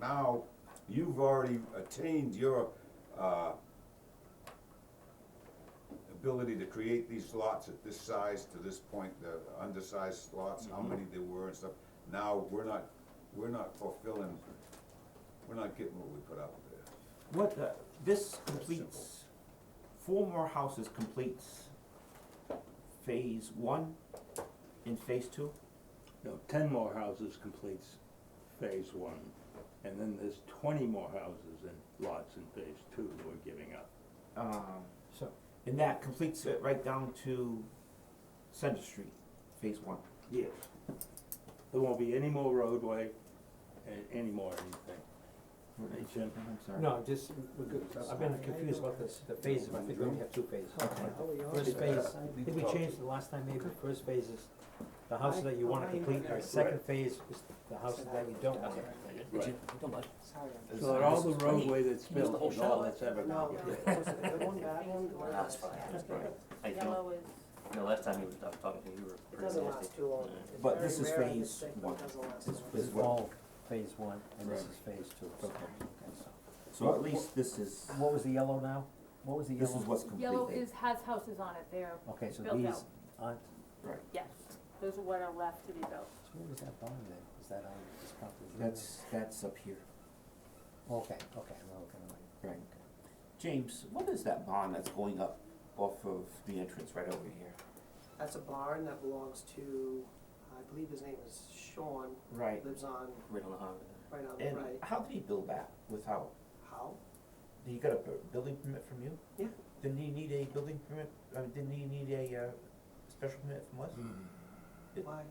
now, you've already attained your, uh, ability to create these slots at this size to this point, the undersized slots, Mm-hmm. how many there were and stuff. Now, we're not, we're not fulfilling, we're not getting what we put out there. What, the- this simple. completes, four more houses completes phase one and phase two? No, ten more houses completes phase one, and then there's twenty more houses and lots in phase two that we're giving up. Um, So, and that completes it right down to Center Street, phase one. Yes. There won't be any more roadway and any more anything. Hey, Jim. I'm sorry. no, just, we're good. I've been confused about this, the phases, I think we only have two phases. First phase, I think we changed the last time, maybe, the first phase is the houses that you wanna complete, the second phase is the houses that you don't wanna complete. Right. Don't bud. So that all the This is twenty. roadway that's Can you use the built whole is all shell? that's ever No, gonna it was it the one bad one? the one That's that was- fine, yeah. that's fine. I feel, Yellow is, you know, last time you were talking to me, you were It pretty doesn't nasty. last too long. Yeah. It's But very this is rare I get phase sick, but it one. doesn't last This long. is one, phase one, and this Right. is phase two. so at least this is, What was the yellow now? What was the this is what's completed. yellow is, has houses on it, they're Okay, so built out, aren't, Right, yes, those are what are left to be built. what was that bond then? Is that on this property? that's, that's up here. Okay, okay, I'm looking at Right. Okay. James, what is that bond that's going up off of the entrance right over here? That's a barn that belongs to, I believe his name is Sean, Right, lives on, Right on the highway right on, there. right, how did he build that without, how? he got a building permit from you? Yeah. Didn't he need a building permit, uh, didn't he need a, uh, special permit from us? Hmm. It- Why?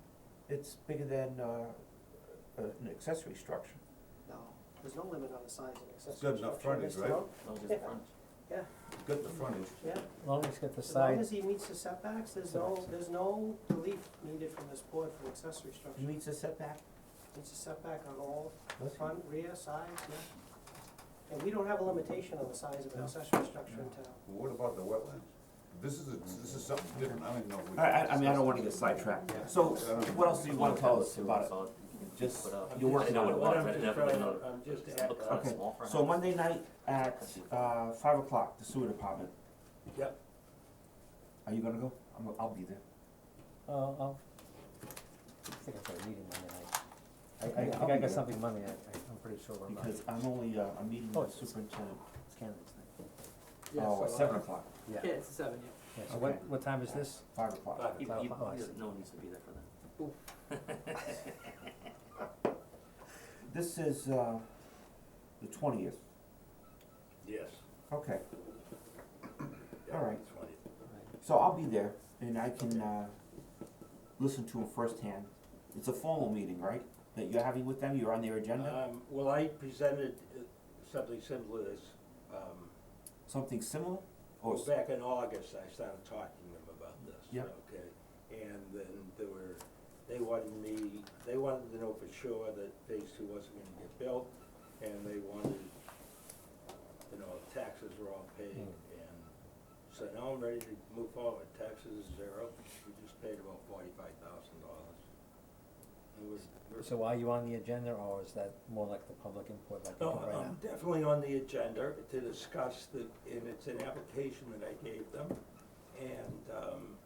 It's bigger than, uh, an accessory structure. No, there's no limit on the size of accessory Good enough structure, frontage, Mr. right? Oak. Not just Yeah. frontage. Got the frontage. Yeah, As long as it's got the as long side, as he meets the setbacks, there's no, there's no relief needed from this board for accessory structure. He meets a setback? It's a setback on all Does he? front, rear, sides, yeah. And we don't have a limitation on the size of an accessory structure in town. Well, What about the wetlands? This is, a- this is something different, I don't even know. if we I, I, can I mean, I don't discuss wanna get sidetracked, so what else do you wanna tell us about it? Just, you're working on it. What I'm just trying, I'm just Okay, So Monday night at, uh, five o'clock, the sewer department. Yep. Are you gonna go? I'm, I'll be there. Oh, oh. I think I've got a meeting Monday night. I, I Yeah, I I'll think I be there. got something Monday night, I- I'm pretty sure I'm not, Because I'm only, uh, I'm meeting Oh, with it's- superintendent, it's candidates night, oh, at seven o'clock, yeah. it's seven, Yeah, so what, Okay. what time is this? five o'clock. You, Oh, you, oh, I see. no one needs to be there for that. This is, uh, the twentieth, Yes. okay, All right. That's what it- so I'll be there and I can, uh, listen to them firsthand. It's a formal meeting, right, that you're having with them, you're on their agenda? Uh, Um, well, I presented uh, something similar to this, um, Something similar? Or, s- back in August, I started talking to them about this, Yep. okay? And then there were, they wanted me, they wanted to know for sure that phase two wasn't gonna get built, and they wanted, you know, taxes were all paid, Hmm. and so now I'm ready to move forward, taxes is zero, we just paid about forty-five thousand dollars. It was, we're So are you on the agenda, or is that more like the public input, like you No, can write Uh, I'm out? definitely on the agenda to discuss the, and it's an application that I gave them. And, um,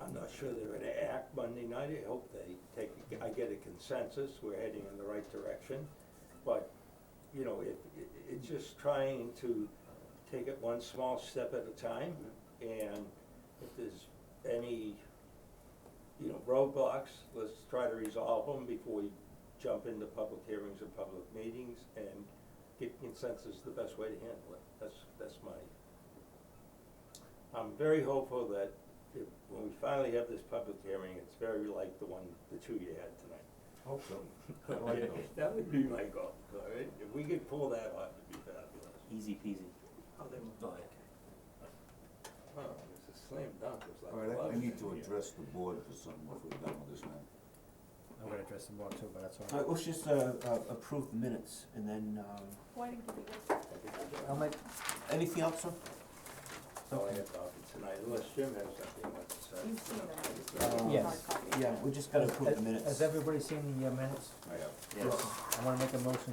I'm not sure they're gonna act Monday night, I hope they take, I get a consensus, we're heading in the right direction. But, you know, it, it, it's just trying to take it one small step at a time. And if there's any, you know, roadblocks, let's try to resolve them before we jump into public hearings and public meetings and get consensus the best way to handle it. That's, that's my, I'm very hopeful that if, when we finally have this public hearing, it's very like the one, the two you had tonight. Hope so. I like those. That would be my goal, all right? If we could pull that off, it'd be fabulous. Easy peasy. How they move. Go ahead. Oh, it's a slam dunk, it's All right, I- I need to address the board for something if we're done with this now. I'm gonna address the board too, but that's all uh, right. let's just, uh, uh, approve the minutes and then, um, Why didn't you do this? I'll make, anything else, sir? So I have to offer tonight, unless Jim has something he wants to say. You've seen that. Uh, Yes. Hard copy. Yeah, we just gotta approve the has minutes. everybody seen the uh, minutes? I have Yes. I wanna make a motion to